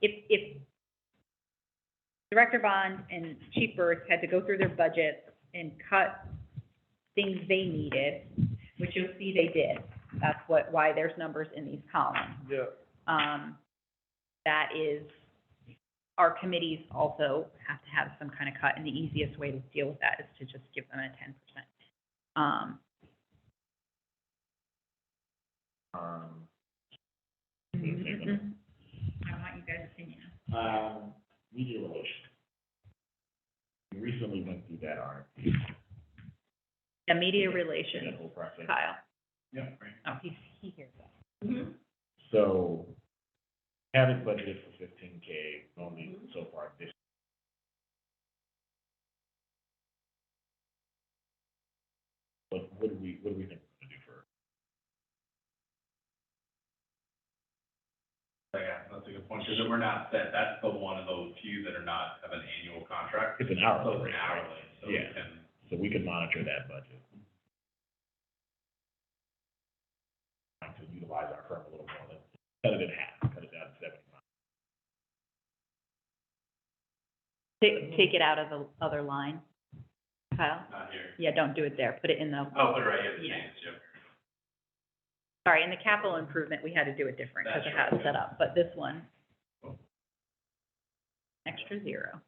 if, if Director Bond and Chief Burris had to go through their budgets and cut things they needed, which you'll see they did, that's what, why there's numbers in these columns. Yeah. Um, that is, our committees also have to have some kind of cut, and the easiest way to deal with that is to just give them a ten percent. Um, Um, mm, mm, mm. Mhm. I want you guys' opinion. um, media relations. We recently went through that RFP, Yeah, media that relations, whole process. Kyle, Mm-hmm. Yeah, right. oh, he, he hears us. So, haven't budgeted for fifteen K only so far this. But what do we, what do we think we're gonna do for? Yeah, that's a good point, because we're not, that, that's the one of those few that are not, have an annual contract, It's an so hourly it's rate, right? hourly, so we Yeah. can, So we can monitor that budget. Trying to utilize our firm a little more, let's cut it in half, cut it down to seventy-five. Take, take it out of the other line, Kyle? not uh, here. Yeah, don't do it there, put it in the, Oh, put it right here, the Yeah. change, yep. sorry, in the capital improvement, we had to do it different because of how it's set up, but this one, extra zero.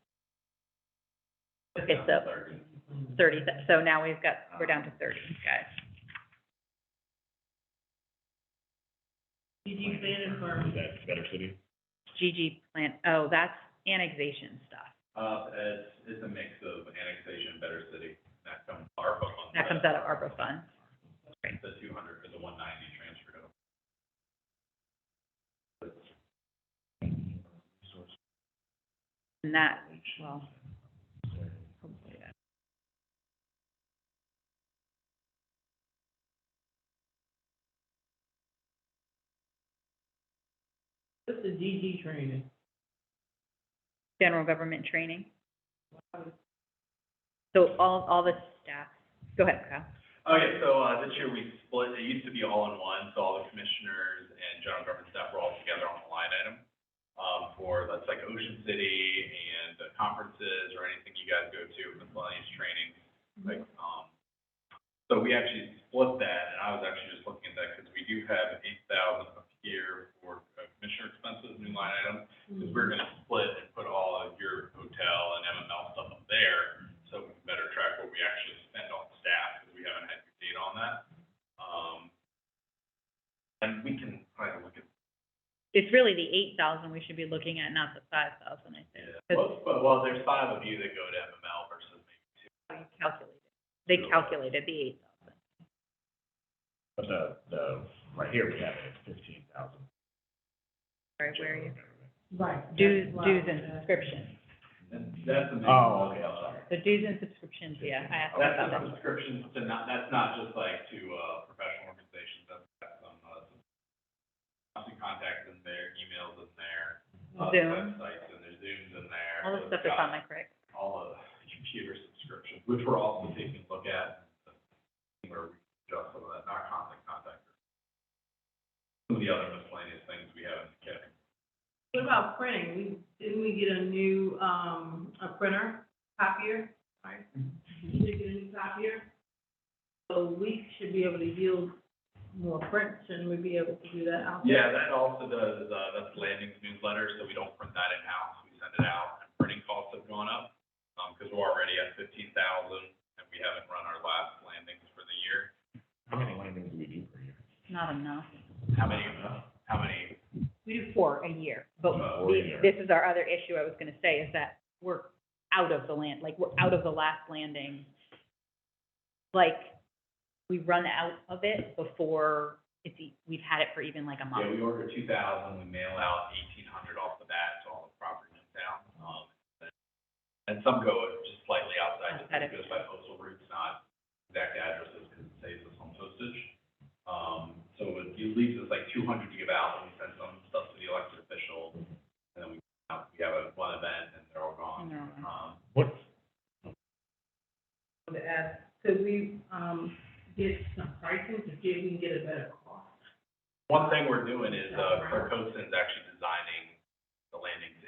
Okay, so Thirty. thirty, th- so now we've got, we're down to thirty, guys. GG Planning Firm. Is that Better City? GG plant, oh, that's annexation stuff, Uh, it's, it's a mix of annexation, better city, that comes, ARPA funds. that comes out of ARPA funds. The two hundred for the one ninety transfer to. And that, well, hopefully that. What's the DG training? general government training. So all, all the staff, go ahead, Kyle. Okay, so, uh, this year we split, it used to be all in one, so all the commissioners and general government staff were all together on the line item. Um, for, that's like Ocean City and uh, conferences or anything you guys go to, miscellaneous training, like, um. So we actually split that, and I was actually just looking at that, because we do have eight thousand up here for uh, commissioner expenses, new line item. Because we're gonna split and put all of your hotel and MML stuff up there, so we can better track what we actually spend on staff, because we haven't had your data on that. Um, and we can kind of look at, It's really the eight thousand we should be looking at, not the five thousand, I think. yeah, But well, but- well, there's five of you that go to MML versus maybe two. they calculated- They uh, calculated the eight thousand. But the, the, right here, we have it at fifteen thousand. Sorry, where are you? Right. Dues, dues and subscriptions. And that's a mix Oh, of, okay, I'm uh, sorry. The dues and subscriptions, yeah, I asked That's about the that. subscriptions to not, that's not just like to, uh, professional organizations, that's, that's some, uh, some constant contacts in there, emails in there, uh, Zoom. websites, and there's Zooms in there. All the so stuff it's that's on got my crick. All the computer subscriptions, which we're also taking a look at, where we adjust some of that, not constant contact. Some of the other miscellaneous things we haven't kept. What about printing? We, didn't we get a new, um, a printer, copier? Right. Did we get a new copier? So we should be able to yield more prints, shouldn't we be able to do that out? Yeah, that also does, uh, that's Landing's newsletter, so we don't print that in-house, we send it out, and printing costs have gone up, um, because we're already at fifteen thousand, and we haven't run our last landings for the year. How many landings do we do per year? Not enough. How many, how many, We do four a year, but uh, Four a year. this is our other issue I was gonna say, is that we're out of the land, like, we're out of the last landing. Like, we run out of it before it's, e- we've had it for even like a yeah, month. we order two thousand, we mail out eighteen hundred off the bat to all the properties in town, um, and- and some go just slightly outside, just Outside of- goes by postal routes, not exact addresses, because it saves us on postage. Um, so it it leaves us like two hundred to give out, and we send some stuff to the elected officials, and then we, we have a one event, and they're all And gone. they're all gone. Um, What, To ask, could we, um, get some pricing to see if we can get a better cost? one thing we're doing is, uh, Kirk Coates sends